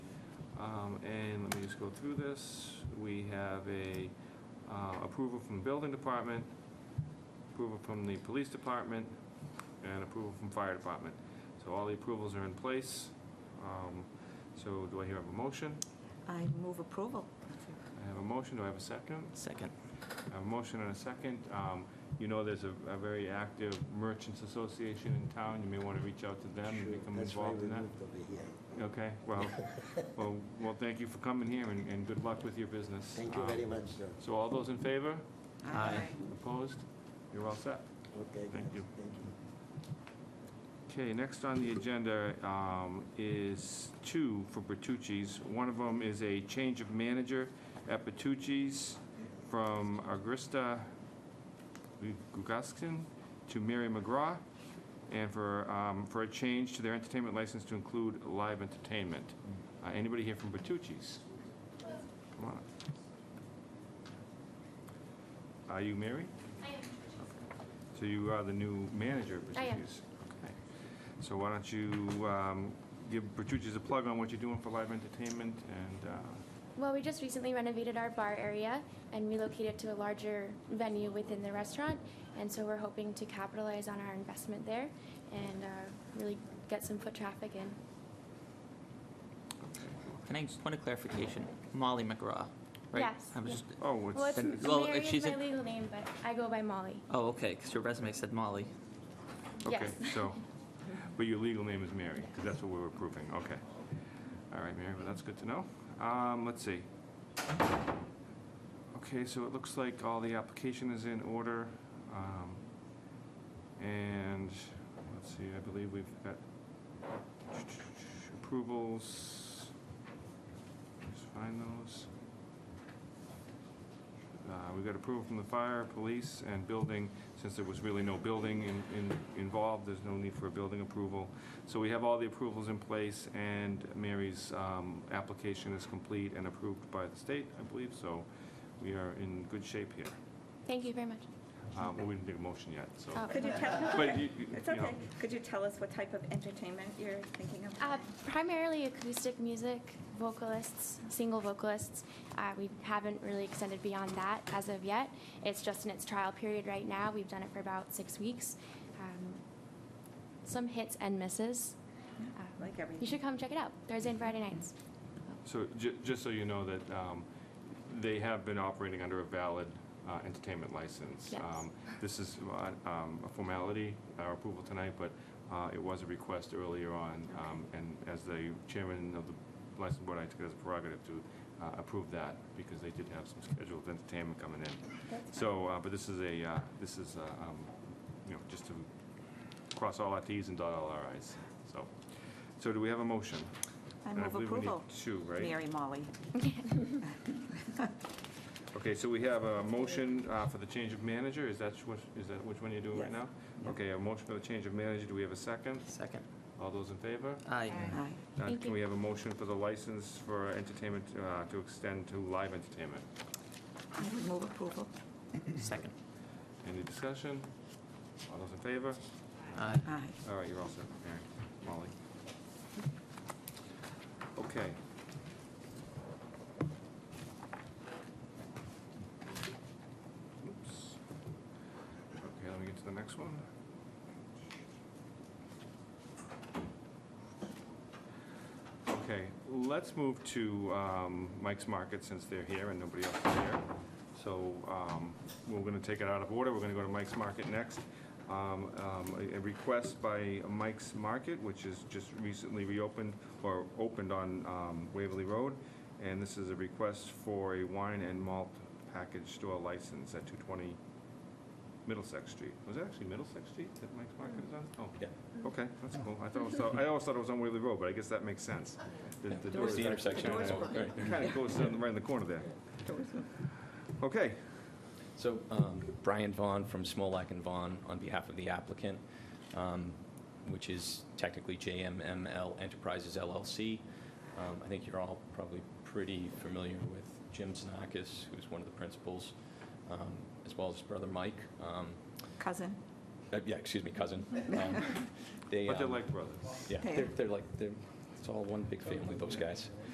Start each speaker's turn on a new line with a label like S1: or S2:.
S1: Um, And let me just go through this. We have a uh, approval from the building department, approval from the police department, and approval from fire department. So all the approvals are in place. Um, So do I hear a motion?
S2: I move approval.
S1: I have a motion, do I have a second?
S3: Second.
S1: I have a motion and a second. Um, You know, there's a a very active merchants association in town, you may want to reach out to them and
S4: Sure,
S1: become involved in that.
S4: That's why we moved over here.
S1: Okay, well, well, well, thank you for coming here, and and good luck with your business.
S4: Thank you
S1: Um,
S4: very much, sir.
S1: So all those in favor?
S3: Aye.
S1: Opposed? You're all set.
S4: Okay.
S1: Thank
S4: guys,
S1: you.
S4: Thank you.
S1: Okay, next on the agenda um, is two for Bertucci's. One of them is a change of manager at Bertucci's from Agrista Gugaskin to Mary McGraw, and for, um, for a change to their entertainment license to include live entertainment. Uh, Anybody here from Bertucci's? Come on. up. Are you Mary?
S5: I am.
S1: So you are the new manager of
S5: I am.
S1: Bertucci's? Okay. So why don't you um, give Bertucci's a plug on what you're doing for live entertainment and, uh,
S5: Well, we just recently renovated our bar area and relocated to a larger venue within the restaurant, and so we're hoping to capitalize on our investment there and uh, really get some foot traffic in.
S3: Can I just want a clarification? Molly McGraw, right?
S5: Yes,
S3: I was
S5: yeah.
S3: just.
S1: oh,
S5: Well, it's,
S1: it's,
S3: Then- well,
S5: Mary is
S3: she's
S5: my
S3: a-
S5: legal name, but I go by Molly.
S3: Oh, okay. Because your resume said Molly.
S1: okay,
S5: yes.
S1: so, but your legal name is Mary, because that's what we're approving, okay. All right, Mary, well, that's good to know. Um, Let's see. Okay, so it looks like all the application is in order. um, And, let's see, I believe we've got approvals. Just find those. Uh, We've got approval from the fire, police, and building. Since there was really no building in- in- involved, there's no need for a building approval. So we have all the approvals in place, and Mary's um, application is complete and approved by the state, I believe, so we are in good shape here.
S5: Thank you very much.
S1: Uh, well, We didn't get a motion yet, so.
S5: Oh.
S2: Could you tell,
S1: But you- you-
S2: it's
S1: you know,
S2: okay. Could you tell us what type of entertainment you're thinking of?
S5: Uh, primarily acoustic music, vocalists, single vocalists. Uh, we haven't really extended beyond that as of yet. It's just in its trial period right now. We've done it for about six weeks. Um, some hits and misses. Um,
S2: Like
S5: you
S2: everything.
S5: should come check it out Thursday and Friday nights.
S1: So, ju- just so you know that um, they have been operating under a valid uh, entertainment license.
S5: Yes.
S1: Um, This is uh, um, a formality, our approval tonight, but uh, it was a request earlier on, um, and as the chairman of the license board, I took it as a prerogative to uh, approve that, because they did have some scheduled entertainment coming in. So, uh, but this is a, uh, this is, uh, um, you know, just to cross all our Ts and dot all our Is, so. So do we have a motion?
S2: I
S1: And
S2: move
S1: believe we need
S2: approval.
S1: Two, right?
S2: Mary Molly.
S1: Okay, so we have a motion uh, for the change of manager, is that which, is that which one you're doing right
S2: Yes.
S1: now? Okay, a motion for the change of manager, do we have a second?
S3: Second.
S1: All those in favor?
S3: Aye.
S2: Aye.
S1: Now,
S5: Thank
S1: Can
S5: you.
S1: we have a motion for the license for entertainment, uh, to extend to live entertainment?
S2: I would move approval.
S3: Second.
S1: Any discussion? All those in favor?
S3: Aye.
S2: Aye.
S1: All right, you're all set, Mary, Molly. Okay. Oops. Okay, let me get to the next one. Okay, let's move to um, Mike's Market since they're here and nobody else is here. So um, we're going to take it out of order. We're going to go to Mike's Market next. Um, um, A a request by Mike's Market, which is just recently reopened or opened on um, Waverly Road. And this is a request for a wine and malt package store license at 220 Middlesex Street. Was it actually Middlesex Street that Mike's Market is on? Oh,
S6: Yeah.
S1: Okay, that's cool. I thought, it was- I always thought it was on Waverly Road, but I guess that makes sense. The- the doors-
S6: It's the intersection.
S2: doors were-
S6: Right.
S1: Kind of goes down right in the corner there. Okay,
S6: So um, Brian Vaughn from Smolak and Vaughn, on behalf of the applicant, um, which is technically JMML Enterprises LLC. Um, I think you're all probably pretty familiar with Jim Zanakis, who's one of the principals, um, as well as his brother Mike. Um,
S2: Cousin.
S6: uh, Yeah, excuse me, cousin. Um, They,
S1: but they're
S6: um,
S1: like brothers.
S6: Yeah,
S2: They
S6: they're
S2: are.
S6: they're like, they're- it's all one big family, those guys.